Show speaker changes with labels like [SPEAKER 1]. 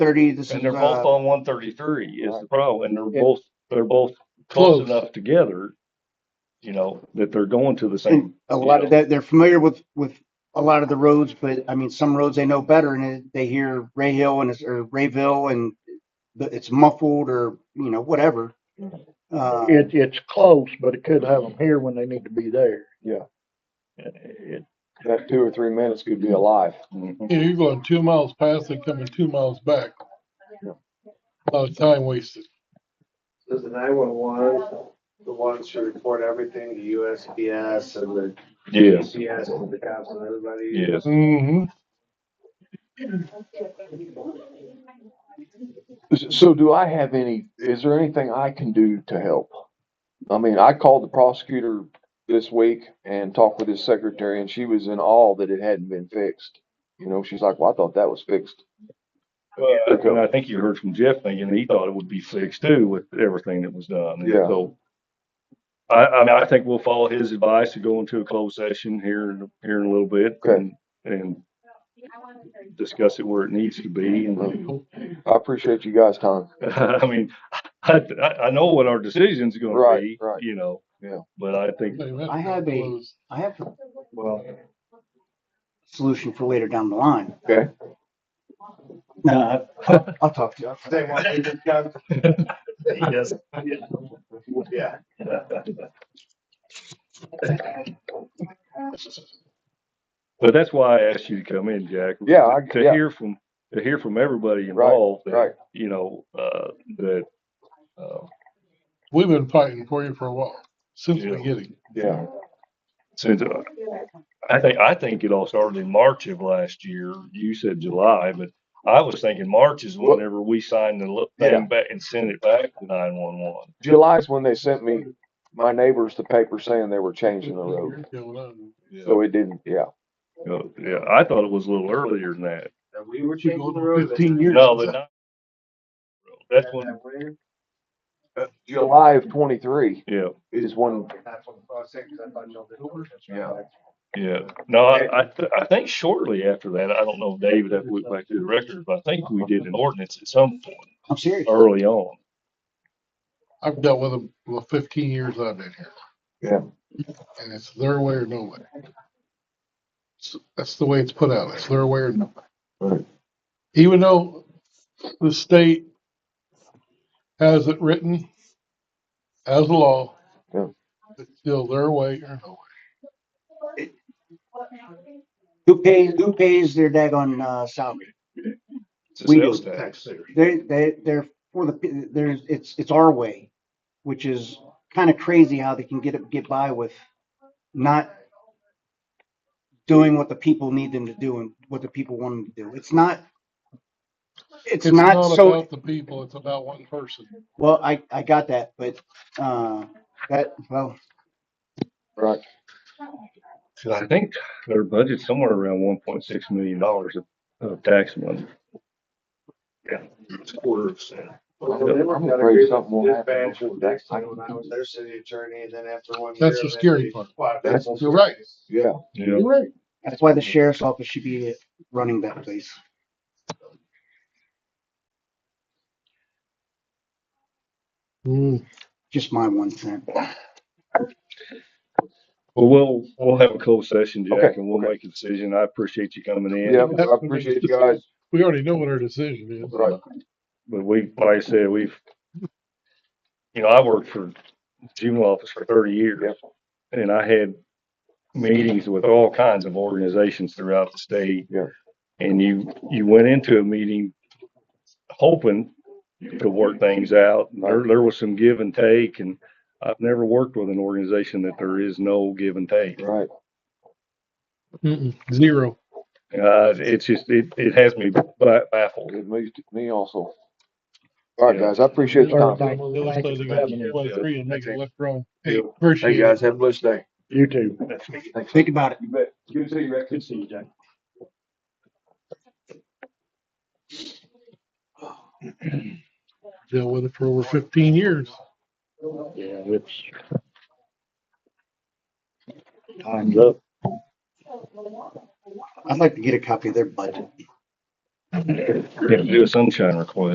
[SPEAKER 1] thirty, this
[SPEAKER 2] And
[SPEAKER 1] is,
[SPEAKER 2] they're both
[SPEAKER 1] uh,
[SPEAKER 2] on one thirty-three is the problem, and
[SPEAKER 1] Yeah.
[SPEAKER 2] they're both, they're both close
[SPEAKER 3] Close.
[SPEAKER 2] enough together. You know, that they're going to the same.
[SPEAKER 1] a lot of that, they're familiar with, with a lot of the roads, but I mean, some roads they know better and it- they hear Ray Hill and it's, or Rayville and the- it's muffled or, you know, whatever. Uh,
[SPEAKER 3] It, it's close, but it could have them here when they need to be there.
[SPEAKER 4] Mm-hmm.
[SPEAKER 2] It-
[SPEAKER 4] That two or three minutes could be alive.
[SPEAKER 2] it-
[SPEAKER 5] Yeah, you're going two miles past and coming two miles back.
[SPEAKER 4] Yeah.
[SPEAKER 5] A lot of time wasted.
[SPEAKER 6] Does the nine-one-one, the ones who report everything, the USPS and the
[SPEAKER 2] Yes,
[SPEAKER 6] GPS and the cops and everybody?
[SPEAKER 2] yes.
[SPEAKER 5] Mm-hmm.
[SPEAKER 4] So do I have any, is there anything I can do to help? I mean, I called the prosecutor this week and talked with his secretary and she was in awe that it hadn't been fixed. You know, she's like, well, I thought that was fixed.
[SPEAKER 2] Well, and I think you heard from Jeff thinking he thought it would be fixed too with everything that was done.
[SPEAKER 4] Yeah.
[SPEAKER 2] So I, I mean, I think we'll follow his advice to go into a closed session here, in- here in a little bit
[SPEAKER 4] Okay.
[SPEAKER 2] and, and discuss it where it needs to be and
[SPEAKER 4] I appreciate you guys' time.
[SPEAKER 2] I mean, I, I- I know what our decision's gonna
[SPEAKER 4] Right,
[SPEAKER 2] be,
[SPEAKER 4] right.
[SPEAKER 2] you know.
[SPEAKER 4] Yeah.
[SPEAKER 2] But I think,
[SPEAKER 1] I have a- I have a
[SPEAKER 4] Well,
[SPEAKER 1] solution for later down the line.
[SPEAKER 4] Okay.
[SPEAKER 1] No, I- I'll talk to you.
[SPEAKER 6] They want me to come?
[SPEAKER 2] yes,
[SPEAKER 6] Yeah.
[SPEAKER 2] but that's why I asked you to come in, Jack.
[SPEAKER 4] Yeah, I-
[SPEAKER 2] To
[SPEAKER 4] yeah.
[SPEAKER 2] hear from, to hear from everybody involved. that,
[SPEAKER 4] right.
[SPEAKER 2] You know, uh, that, uh,
[SPEAKER 5] We've been fighting for you for a while, since the
[SPEAKER 2] Yeah.
[SPEAKER 5] beginning.
[SPEAKER 4] yeah,
[SPEAKER 2] since, uh, I think, I think it all started in March of last year. You said July, but I was thinking March is
[SPEAKER 4] Well-
[SPEAKER 2] whenever we signed the li-
[SPEAKER 4] Yeah.
[SPEAKER 2] thing back and sent it back to nine one one.
[SPEAKER 4] July's when they sent me, my neighbors, the paper saying they were changing the road. So it didn't, yeah.
[SPEAKER 2] Yeah, I thought it was a little earlier than that.
[SPEAKER 6] And we were
[SPEAKER 5] You're
[SPEAKER 6] changing
[SPEAKER 5] going
[SPEAKER 6] the
[SPEAKER 5] on
[SPEAKER 6] road.
[SPEAKER 5] fifteen years.
[SPEAKER 2] No, the nine. That's
[SPEAKER 6] And
[SPEAKER 2] when,
[SPEAKER 6] that winter,
[SPEAKER 4] July of twenty-three
[SPEAKER 2] yeah,
[SPEAKER 4] is when,
[SPEAKER 6] that's when I was sick, 'cause I thought y'all did over.
[SPEAKER 4] Yeah.
[SPEAKER 2] yeah. No, I, I, th- I think shortly after that, I don't know, David, if we went back to the records, but I think we did an ordinance at some point
[SPEAKER 1] I'm serious.
[SPEAKER 2] early on.
[SPEAKER 5] I've dealt with them for fifteen years I've been here.
[SPEAKER 4] Yeah.
[SPEAKER 5] And it's their way or no way. S- That's the way it's put out. It's their way or no way.
[SPEAKER 4] Right.
[SPEAKER 5] Even though the state has it written as a law,
[SPEAKER 4] Yeah.
[SPEAKER 5] it's still their way or no way.
[SPEAKER 1] Who pays, who pays their daggone, uh, salary?
[SPEAKER 2] It's a
[SPEAKER 1] We
[SPEAKER 2] sales
[SPEAKER 1] do.
[SPEAKER 2] tax.
[SPEAKER 1] They, they, they're for the, there's, it's, it's our way, which is kind of crazy how they can get, it- get by with not doing what the people need them to do and what the people want them to do. It's not, it's not so,
[SPEAKER 5] about The people, it's about one person.
[SPEAKER 1] well, I, I got that, but, uh, that, well,
[SPEAKER 4] right,
[SPEAKER 2] So I think their budget's somewhere around one point six million dollars of, of tax money. Yeah, it's a quarter of a cent.
[SPEAKER 6] Well,
[SPEAKER 4] I'm
[SPEAKER 6] they worked out a
[SPEAKER 4] afraid
[SPEAKER 6] great
[SPEAKER 4] something will happen
[SPEAKER 6] dispatch
[SPEAKER 4] before
[SPEAKER 6] with
[SPEAKER 4] that.
[SPEAKER 6] Dixon When I was their city attorney, and then after one.
[SPEAKER 5] That's
[SPEAKER 6] year,
[SPEAKER 5] the
[SPEAKER 6] then
[SPEAKER 5] scary
[SPEAKER 6] they-
[SPEAKER 5] part.
[SPEAKER 6] Well,
[SPEAKER 4] That's-
[SPEAKER 6] what's-
[SPEAKER 5] you're right.
[SPEAKER 4] yeah.
[SPEAKER 2] Yeah,
[SPEAKER 5] right.
[SPEAKER 1] that's why the sheriff's office should be running that place.
[SPEAKER 5] Mm.
[SPEAKER 1] Just my one cent.
[SPEAKER 2] well, we'll, we'll have a closed session, Jack,
[SPEAKER 4] Okay,
[SPEAKER 2] and we'll
[SPEAKER 4] okay.
[SPEAKER 2] make a decision. I appreciate you coming in.
[SPEAKER 4] Yeah, I appreciate you guys.
[SPEAKER 5] We already know what our decision is.
[SPEAKER 4] Right.
[SPEAKER 2] But we, like I said, we've, you know, I worked for juvenile office for thirty years. And I had meetings with all kinds of organizations throughout the state.
[SPEAKER 4] Yeah.
[SPEAKER 2] And you, you went into a meeting hoping to work things out. There, there was some give and take and I've never worked with an organization that there is no give and take.
[SPEAKER 4] Right.
[SPEAKER 5] Mm-mm. Zero.
[SPEAKER 2] Uh, it's just, it, it has me ba- baffled.
[SPEAKER 4] It moved me also. All right,
[SPEAKER 2] Yeah.
[SPEAKER 4] guys, I appreciate your time.
[SPEAKER 5] Illustrating that play three and make it left wrong. Hey,
[SPEAKER 2] Yeah.
[SPEAKER 5] appreciate it.
[SPEAKER 4] have a blessed day.
[SPEAKER 3] You too.
[SPEAKER 2] That's me.
[SPEAKER 1] Think about it.
[SPEAKER 4] You bet. Good to see you, Rick.
[SPEAKER 2] Good seeing you, Jack.
[SPEAKER 5] Dealt with it for over fifteen years.
[SPEAKER 3] Yeah, it's. Time's up.
[SPEAKER 1] I'd like to get a copy of their budget.
[SPEAKER 2] You have to do a sunshine request.